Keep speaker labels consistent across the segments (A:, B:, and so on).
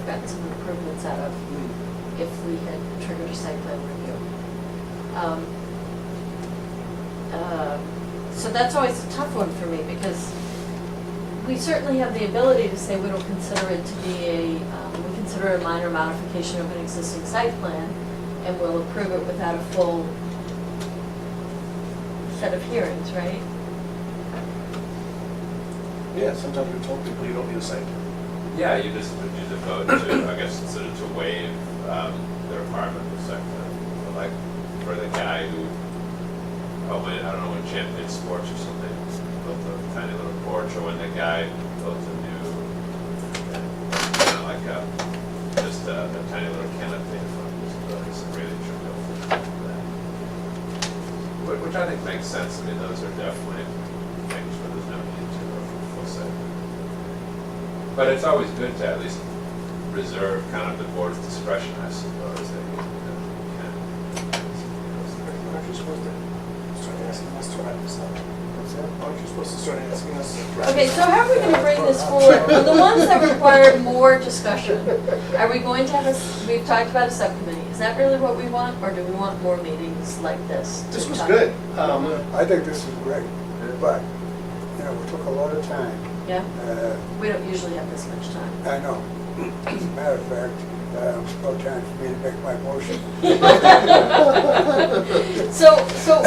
A: gotten some improvements out of if we had triggered a site plan review. Um, uh, So that's always a tough one for me, because we certainly have the ability to say we don't consider it to be a, um, we consider it a minor modification of an existing site plan, and we'll approve it without a full set of hearings, right?
B: Yeah, sometimes we told people you don't need a site.
C: Yeah, you just, you just vote to, I guess, sort of to waive um, the requirement for site plan. But, Like, for the guy who, oh, when, I don't know, when Jim did sports or something, built a tiny little porch, or when the guy built a new, kind of like a, just a a tiny little canopy in front of his building, some really trivial things like that. Which, which I think makes sense, I mean, those are definitely things where there's no need to go for full site plan. But it's always good to at least reserve kind of the board's discretion, I suppose, that you know,
B: Aren't you supposed to start asking us to write this up? Aren't you supposed to start asking us? to write
A: Okay,
B: this
A: so
B: up?
A: how are we gonna bring this forward? Well, the ones that require more discussion, are we going to have a, s- we've talked about a subcommittee, is that really what we want, or do we want more meetings like this?
B: This was good. Um,
D: I think this is great, but, you know, we took a lot of time.
A: Yeah,
D: Uh,
A: we don't usually have this much time.
D: I know, as a matter of fact, uh, it's about time for me to make my motion.
A: So, so,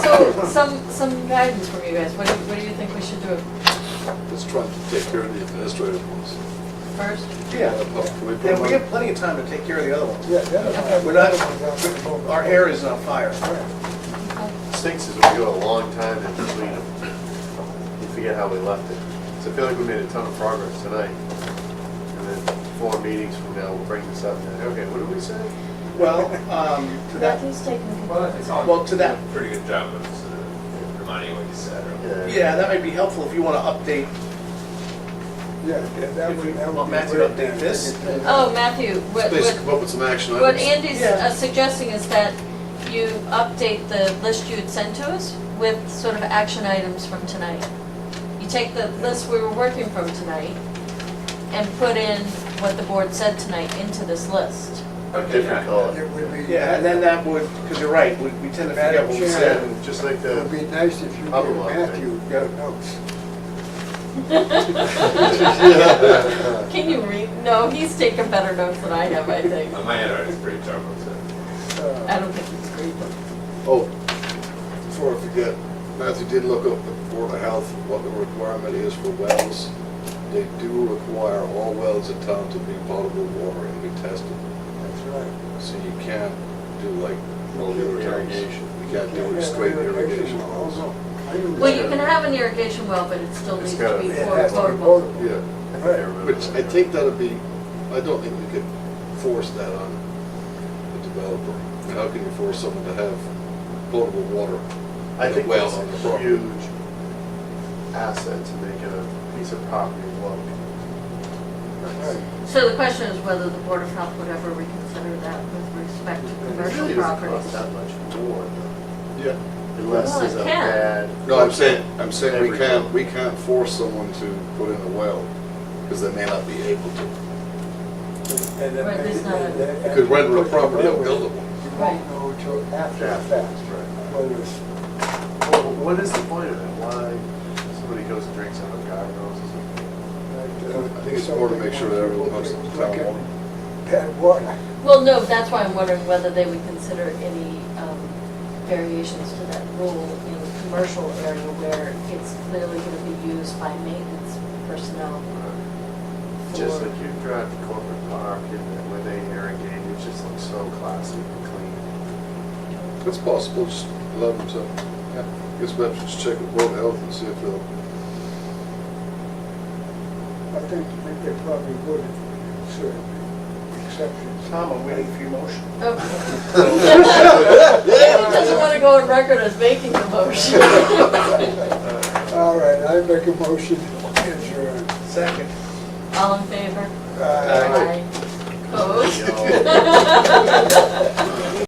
A: so, some, some guidance from you guys, what do, you- what do you think we should do
E: Let's try to take care of the administrative ones. Oh,
A: first?
B: Yeah,
E: Can we put
B: and
E: them
B: we
E: on-
B: have plenty of time to take care of the other ones.
D: Yeah, the other
B: We're
D: one-
B: not, our hair is on fire.
D: Yeah,
E: Stinks is we go a long time in between them. You forget how we left it. So I feel like we made a ton of progress tonight. And then four meetings from now, we'll bring this up. and, Okay, what did we say?
B: Well, um, to that,
A: Matthew's taking
C: yeah.
A: the-
C: Well, it's all.
B: Well, to that-
C: Pretty good job of sort of reminding you what you said. earlier.
B: yeah, that might be helpful if you want to update.
D: yeah, that that
B: If
D: would,
B: you
D: that would
B: want
D: be
B: Matthew to
D: great.
B: update this, then-
A: Oh, Matthew, what,
E: Please
A: what,
E: come up with some action
A: what
E: items.
A: Andy's
B: Yeah.
A: uh, suggesting is that you update the list you had sent to us with sort of action items from tonight. You take the list we were working from tonight and put in what the board said tonight into this list.
C: Okay,
E: Different
C: yeah.
E: color.
D: It would be.
B: Oh, yeah, and then that would, because you're right, we we tend to forget what we
D: Madam
B: said.
D: Chair.
E: Yeah, just like
D: It would be
E: the,
D: nice if you gave
E: Other one, I think.
D: Matthew
B: Yeah.
D: the notes.
A: Can you read? No, he's taken better notes than I have, I think.
C: Uh, My handwriting's pretty terrible
A: I
C: too.
D: Uh,
A: don't think he's read them.
E: oh, before I forget, Matthew did look up the Board of Health, what the requirement is for wells. They do require all wells in town to be potable water and be tested.
D: That's right.
E: So you can't do like
D: Multiple
E: irrigation, you can't do
D: Yeah,
E: it straight
D: irrigation
E: irrigation.
D: wells. I knew
A: Well, you
D: that.
A: can have an irrigation well, but it still
E: It's
A: needs to
E: gotta-
A: be
D: It has to be
A: potable.
D: potable.
E: Yeah,
D: Right.
E: which I think that'd be, I don't think we could force that on the developer. How can you force someone to have potable water?
F: I think
E: Well,
F: that's
E: on the
F: a
E: property.
F: huge asset to make it a piece of property look nice.
D: Right.
A: So the question is whether the Board of Health would ever reconsider that with respect to
F: It
A: commercial
F: really doesn't cost
A: properties.
F: that much more, though,
E: Yeah.
F: unless
A: Well,
F: there's
A: it
F: a
A: can.
F: bad.
E: No, I'm saying, I'm saying we
F: Every-
E: can't, we can't force someone to put in a well, because they may not be able to.
D: And then
A: Right,
D: maybe
A: there's not a-
D: they- they-
E: You could render a property unbuildable.
D: You won't know until after the
F: After,
D: fact,
F: right.
D: whether it's
F: Well, what is the point of it? Why somebody goes and drinks out of garden hoses?
E: I think it's important to make sure that everyone has town water.
D: Bad water.
A: Well, no, that's why I'm wondering whether they would consider any um, variations to that rule in the commercial area where it's clearly going to be used by maintenance personnel for,
F: Just like you drive to corporate park and then where they irrigate, it just looks so classy and clean.
E: It's possible, just allow them to, guess perhaps just check with Board of Health and see if they'll
D: I think that they probably would consider exceptions.
B: Tom, I'm waiting for your motion.
A: Oh. He doesn't want to go on record as making the motion.
D: All right, I make a motion to adjourn.
B: Second.
A: All in favor?
D: Uh,
A: Opposed?